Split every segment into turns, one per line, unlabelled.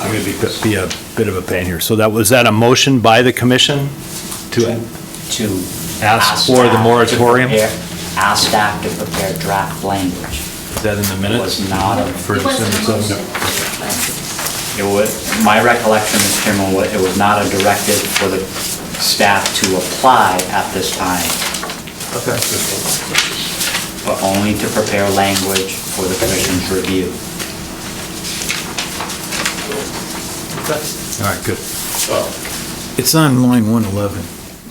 I'm going to be a bit of a pain here. So that, was that a motion by the commission to
to.
ask for the
staff to
moratorium?
prepare- Ask staff to prepare draft language.
Is that in the
It
minutes?
was not, a-
Uh, For
It wasn't
December
a
seventh?
motion.
it was, my recollection, Mr. Chairman, wa- it was not a directive for the staff to apply at this time, but only to prepare language for the commission's review.
All right, good.
Oh,
It's on line 111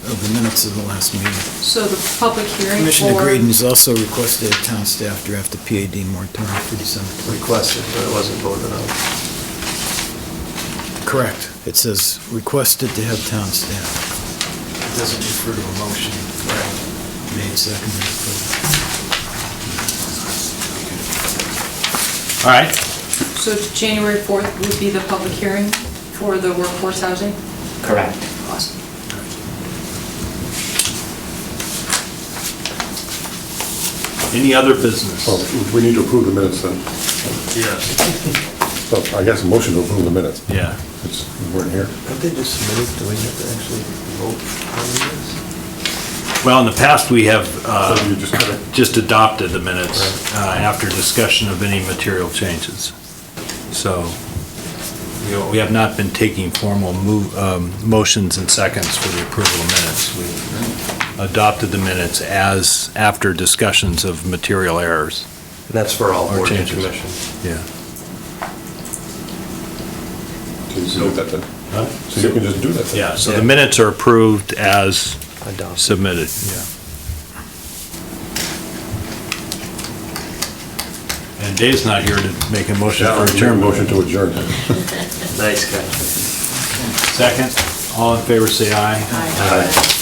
of the minutes of the last meeting.
So the public hearing
Commissioner
for...
Graydon has also requested that town staff draft a PAD moratorium for December 20.
requested, but it wasn't voted on.
Correct. It says requested to have town staff. It doesn't refer to a motion. Made second.
All right.
So January 4th would be the public hearing for the workforce housing?
Correct.
Any other business?
Well, we need to approve the minutes then.
Yes.
So I guess a motion to approve the minutes.
Yeah.
It's, we weren't here.
Have they just submitted, do we have to actually vote on this?
Well, in the past, we have uh,
So you just kinda-
just adopted the minutes uh, after discussion of any material changes. So you know, we have not been taking formal move- um, motions and seconds for the approval of minutes. We adopted the minutes as, after discussions of material errors.
And that's for all
Or
boards and
changes.
commissions.
Yeah.
So you can do that then. So you can just do that then.
Yeah, so the minutes are approved as
Adopt.
submitted, yeah. And Dave's not here to make a motion
Yeah,
for
I'll make a
adjournment.
motion to adjourn.
Nice guy.
Second, all in favor, say aye.
Aye.